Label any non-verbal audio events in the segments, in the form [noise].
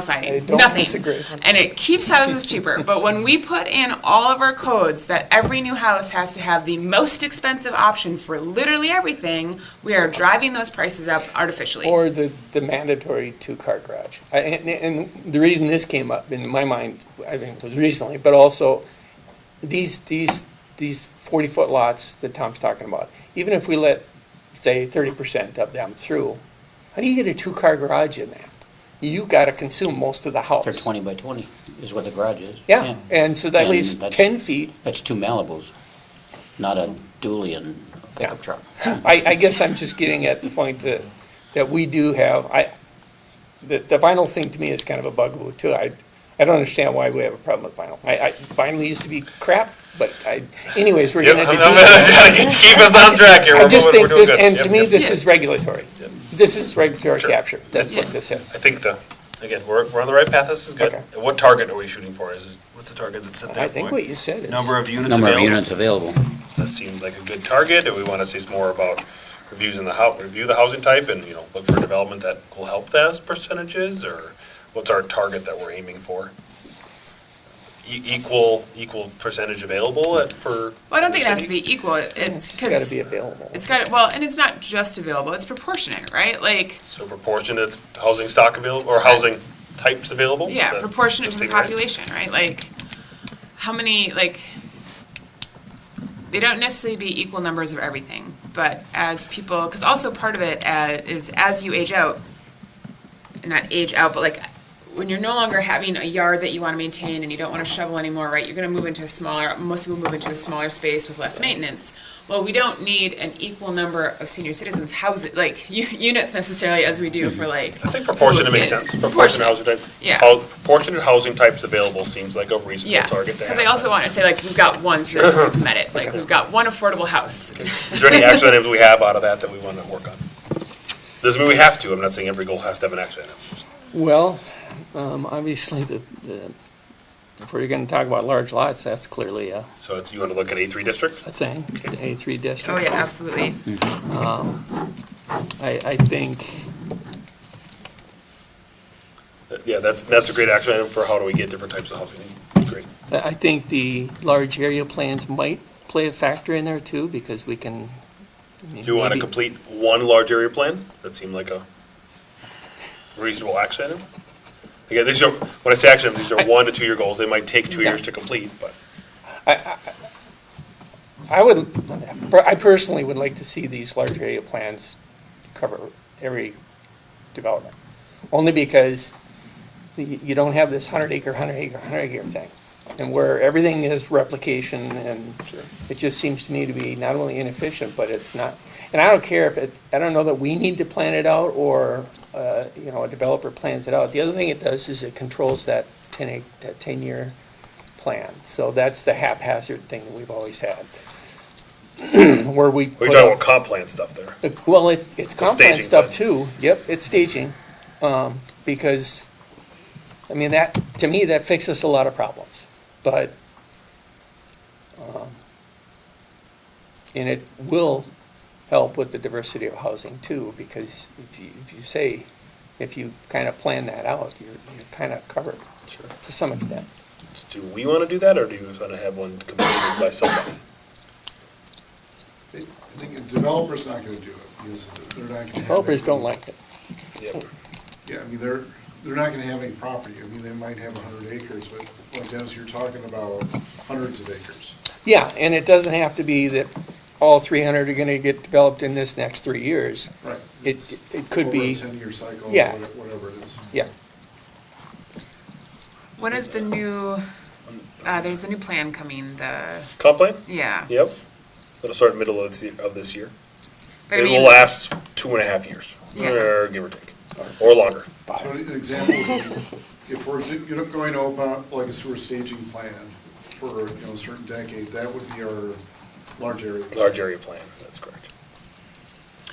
sign, I don't nothing. disagree. And it keeps houses cheaper, but when we put in all of our codes that every new house has to have the most expensive option for literally everything, we are driving those prices up artificially. Or the, the mandatory two-car garage. I- And, and the reason this came up in my mind, I think, was recently, but also, these, these, these forty-foot lots that Tom's talking about, even if we let, say, thirty percent of them through, how do you get a two-car garage in that? You gotta consume most of the house. They're 20 by 20 is what the garage is. Yeah, and so that And leaves that's- ten feet. That's two Malibus, not a dually and a pickup Yeah. truck. I, I guess I'm just getting at the point that, that we do have, I, the, the vinyl thing to me is kind of a bugaboo too. I, I don't understand why we have a problem with vinyl. I, I, vinyl used to be crap, but I, anyways, we're Yep, gonna I'm- do [laughs] I'm that. gonna Keep us on track here. I We're just moving- think we're doing this, good. and to Yep, me, yep. this is regulatory. This is regulatory capture. That's what Yeah. this I is. think the, again, we're, we're on the right path. This is good. Okay. And What target are we shooting for? Is, it- what's the target that's at I that think what point? you said is. Number of units Number of available? units available. That seemed like a good target. Do we want to see some more about reviews in the hou, review the housing type and, you know, look for development that will help those percentages? Or what's our target that we're aiming for? E- Equal, equal percentage available at, for? Well, I don't think it the has to city? be equal, it's, It's just gotta be 'cause available. it's got, well, and it's not just available, it's proportionate, right? Like, So proportionate housing stock available, or housing types available? yeah, That- proportionate that to the seem right? population, right? Like, how many, like, they don't necessarily be equal numbers of everything, but as people, because also part of it uh, is as you age out, not age out, but like when you're no longer having a yard that you want to maintain and you don't want to shovel anymore, right? You're going to move into a smaller. Most people move into a smaller space with less maintenance. Well, we don't need an equal number of senior citizens houses like [laughs] u- units necessarily as we do for like. I think proportionate makes kids. sense. Proportionate housing type. Yeah. hou- Proportionate housing types available seems like a Yeah, reasonable target to because have. I also want to say, like, we've got [coughs] one, so that we've met it, like, we've got one affordable house. Is there any action items we have out of that that we want to work on? Doesn't mean we have to. I'm not saying every goal has to have an action item. Well, um, obviously, the, the, if we're gonna talk about large lots, that's clearly a, So it's, you want to look at A3 district? a thing, the A three district. Oh, yeah, absolutely. I, I think, Yeah, that's, that's a great action item for how do we get different types of housing. Great. I think the large area plans might play a factor in there too, because we can. Do you want to complete one large area plan? That seemed like a reasonable action item. Again, these are, when I say action, items, these are one to two year goals. They might take two Yeah. years to complete, but. I would, I personally would like to see these large area plans cover every development. Only because you you don't have this hundred acre, hundred acre, hundred acre thing. And where everything is replication and it just seems to me to be not only inefficient, but it's not. And I don't care if it, I don't know that we need to plan it out or, uh, you know, a developer plans it out. The other thing it does is it controls that ten ac that ten year plan. So that's the haphazard thing that we've always had. [clears throat] Where we. We're put talking up- about comp plan stuff there. the- Well, it's, it's comp plan staging stuff plan. too. Yep, it's staging. Um, because, I mean, that, to me, that fixes a lot of problems, but, um, and it will help with the diversity of housing too, because if you, if you say, if you kind of plan that out, you're, you're kind of covered to some extent. Do we want to do that, or do you want to have one completed by somebody? I think a developer's not gonna do it, because they're not gonna have. Developers any- don't like it. Yep. Yeah, I mean, they're, they're not gonna have any property, I mean, they might have a hundred acres, but like Dennis, you're talking about hundreds of acres. Yeah, and it doesn't have to be that all three hundred are gonna get developed in this next three years. Right. It, it could Over a be, ten-year cycle, or Yeah. what- whatever it is. yeah. When is the new, uh, there's the new plan coming, the, Comp plan? yeah. Yep. It'll start middle of this, of this year. But I It will mean, last two and a half years, Yeah. or give or take, or longer. So an example, would be, if we're, do- you know, going to open up like a sewer staging plan for, you know, a certain decade, that would be our large area. Large area plan, that's correct.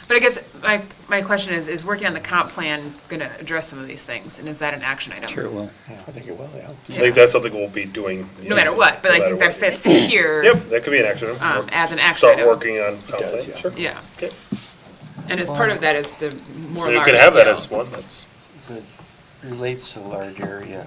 But I guess, my, my question is, is working on the comp plan gonna address some of these things, and is that an action item? Sure it will. I think it will, yeah. I think that's something we'll be doing. No matter what, but I no think matter that fits here. what. Yep, that could be an action. item. Um, as an action Start item. working on comp does, plan, yeah. sure. Yeah, Okay. and as part of that is the more You large could have that scale. as one, that's, Is it relates to large area